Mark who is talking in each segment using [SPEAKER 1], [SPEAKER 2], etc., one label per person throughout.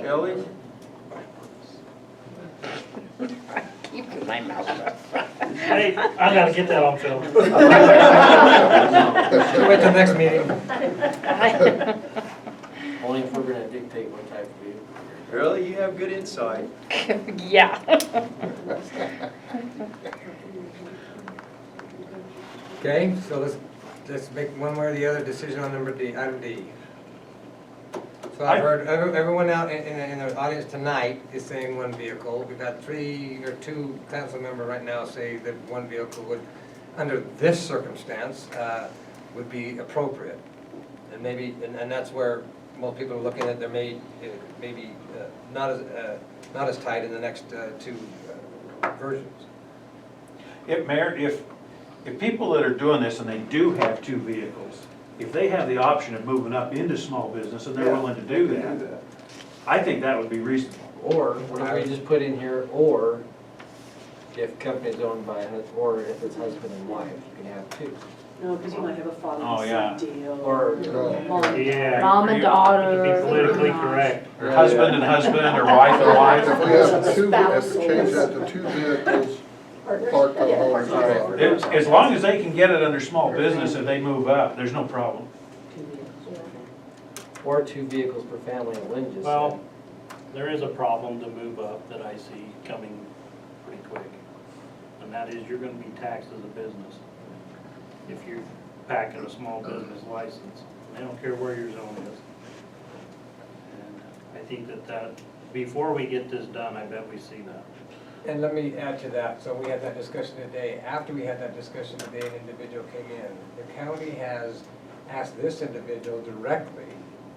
[SPEAKER 1] Kelly?
[SPEAKER 2] Keep my mouth shut.
[SPEAKER 3] Hey, I gotta get that on film. Wait till next meeting.
[SPEAKER 4] Only if we're gonna dictate what type of vehicle.
[SPEAKER 1] Really, you have good insight.
[SPEAKER 2] Yeah.
[SPEAKER 5] Okay, so let's, let's make one way or the other decision on number D, item D. So I've heard, every- everyone out in, in, the- in the audience tonight is saying one vehicle. We've got three or two council member right now say that one vehicle would, under this circumstance, uh, would be appropriate. And maybe, and, and that's where most people are looking at, there may, uh, maybe uh, not as, uh, not as tight in the next uh, two uh, versions.
[SPEAKER 6] If, Mayor, if, if people that are doing this and they do have two vehicles, if they have the option of moving up into small business and they're willing to do that, I think that would be reasonable.
[SPEAKER 4] Or, what if we just put in here, or if company's owned by, hus- or if it's husband and wife, you can have two.
[SPEAKER 7] No, because you might have a father
[SPEAKER 6] Oh, yeah.
[SPEAKER 7] and son deal.
[SPEAKER 4] Or
[SPEAKER 7] Mom and
[SPEAKER 3] Yeah.
[SPEAKER 8] Mom and
[SPEAKER 3] you-
[SPEAKER 8] daughter.
[SPEAKER 3] Be politically correct.
[SPEAKER 6] Or husband and husband, or wife and
[SPEAKER 9] If we
[SPEAKER 6] wife.
[SPEAKER 9] have two, if we change that to two vehicles parked on Holmes Drive.
[SPEAKER 6] As, as long as they can get it under small business and they move up, there's no problem.
[SPEAKER 7] two vehicles.
[SPEAKER 4] Or two vehicles per family, and Lynn just said.
[SPEAKER 3] Well, there is a problem to move up that I see coming pretty quick. And that is you're gonna be taxed as a business. If you're packing a small business license, they don't care where your zone is. And I think that that, before we get this done, I bet we see that.
[SPEAKER 5] And let me add to that, so we had that discussion today, after we had that discussion today, an individual came in. The county has asked this individual directly,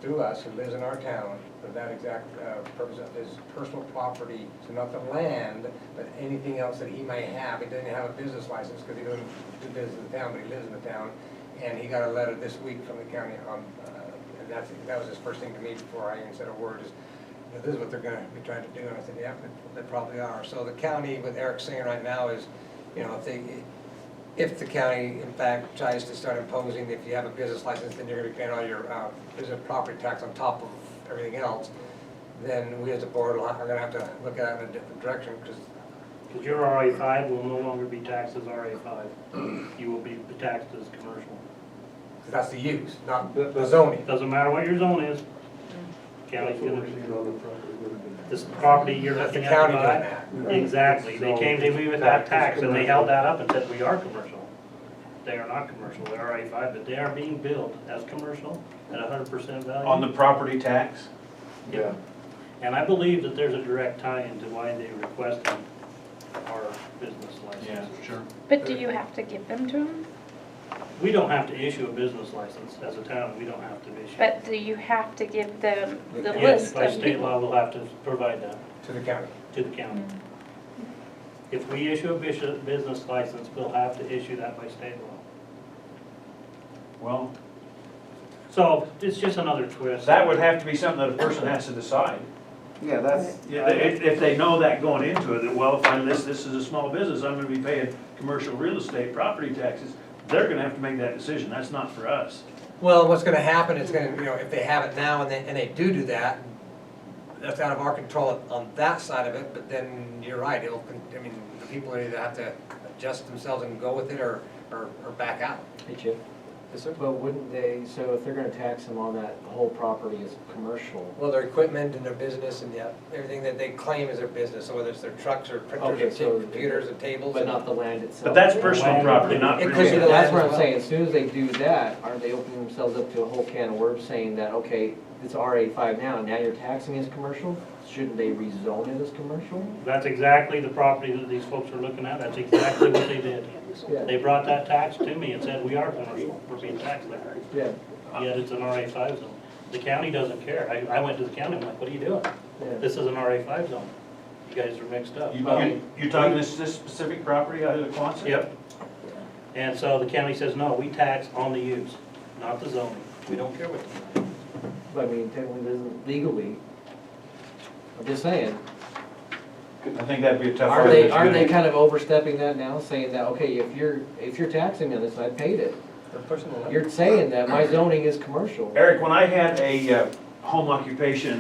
[SPEAKER 5] through us, who lives in our town, for that exact uh, purpose of his personal property, so not the land, but anything else that he might have, he doesn't have a business license, because he doesn't do business in the town, but he lives in the town, and he got a letter this week from the county on, uh, and that's, that was his first thing to me before I even said a word, is, "Now, this is what they're gonna be trying to do, and I said, yeah, but they probably are. So the county with Eric Singer right now is, you know, if they, if the county in fact tries to start imposing, if you have a business license, then you're gonna be paying all your, uh, business property tax on top of everything else, then we as a board will- are gonna have to look at it in a different direction, because
[SPEAKER 3] Because your RA five will no longer be taxed as RA five. You will be taxed as commercial.
[SPEAKER 5] that's the use, not the zoning.
[SPEAKER 3] It doesn't matter what your zone is. County's gonna, this property you're
[SPEAKER 5] That's the
[SPEAKER 3] looking at
[SPEAKER 5] county
[SPEAKER 3] to
[SPEAKER 5] doing
[SPEAKER 3] buy.
[SPEAKER 5] that.
[SPEAKER 3] Exactly. They came to me with that tax and they held that up and said, we are commercial. They are not commercial. They're RA five, but they are being billed as commercial at hundred percent value.
[SPEAKER 6] On the property tax,
[SPEAKER 3] Yeah. And I believe that there's a direct tie into why they requested our business
[SPEAKER 6] yeah,
[SPEAKER 3] licenses.
[SPEAKER 6] sure.
[SPEAKER 2] But do you have to give them to them?
[SPEAKER 3] We don't have to issue a business license as a town, we don't have to issue.
[SPEAKER 2] But do you have to give them the
[SPEAKER 3] Yes,
[SPEAKER 2] list
[SPEAKER 3] by
[SPEAKER 2] of
[SPEAKER 3] state
[SPEAKER 2] people?
[SPEAKER 3] law, we'll have to provide that
[SPEAKER 5] To the county.
[SPEAKER 3] to the county.
[SPEAKER 2] Mm.
[SPEAKER 3] If we issue a bus- business license, we'll have to issue that by state law.
[SPEAKER 6] Well,
[SPEAKER 3] So it's just another twist.
[SPEAKER 6] that would have to be something that a person has to decide.
[SPEAKER 1] Yeah, that's.
[SPEAKER 6] Yeah, they- If, if they know that going into it, that, well, if I list this as a small business, I'm gonna be paying commercial real estate property taxes, they're gonna have to make that decision, that's not for us.
[SPEAKER 5] Well, what's gonna happen is gonna, you know, if they have it now and they, and they do do that, that's out of our control on that side of it, but then you're right, it'll, con- I mean, the people either have to adjust themselves and go with it or, or, or back out.
[SPEAKER 4] Hey, Chip. But wouldn't they, so if they're gonna tax them on that whole property as commercial,
[SPEAKER 5] Well, their equipment and their business and yeah, everything that they claim is their business, so whether it's their trucks or
[SPEAKER 4] Okay,
[SPEAKER 5] printers
[SPEAKER 4] so-
[SPEAKER 5] or computers and tables.
[SPEAKER 4] but
[SPEAKER 5] and-
[SPEAKER 4] not the land itself?
[SPEAKER 6] But that's personal property, not
[SPEAKER 5] It
[SPEAKER 6] real
[SPEAKER 5] could be
[SPEAKER 6] estate.
[SPEAKER 5] the
[SPEAKER 4] That's
[SPEAKER 5] land
[SPEAKER 4] what
[SPEAKER 5] as
[SPEAKER 4] I'm
[SPEAKER 5] well.
[SPEAKER 4] saying, as soon as they do that, are they opening themselves up to a whole can of worms saying that, okay, it's RA five now, now you're taxing it as commercial? Shouldn't they rezone it as commercial?
[SPEAKER 3] That's exactly the property that these folks are looking at, that's exactly what they did. They brought that tax to me and said, we are commercial, we're being taxed there,
[SPEAKER 4] Yeah,
[SPEAKER 3] yet it's an RA five zone. The county doesn't care, I, I went to the county, I'm like, what are you doing?
[SPEAKER 4] yeah.
[SPEAKER 3] This is an RA five zone, you guys are mixed up.
[SPEAKER 6] You- You, you talking this, this specific property out of the Quonset?
[SPEAKER 3] Yep. And so the county says, no, we tax on the use, not the zoning. We don't care what the zoning is.
[SPEAKER 4] But I mean, technically, it isn't legally, I'm just saying.
[SPEAKER 6] I think that'd be a tough.
[SPEAKER 4] Are
[SPEAKER 6] one
[SPEAKER 4] they,
[SPEAKER 6] to
[SPEAKER 4] are they
[SPEAKER 6] get.
[SPEAKER 4] kind of overstepping that now, saying that, okay, if you're, if you're taxing me on this, I paid it.
[SPEAKER 5] They're pushing the limit.
[SPEAKER 4] You're saying that my zoning is commercial.
[SPEAKER 6] Eric, when I had a uh, home occupation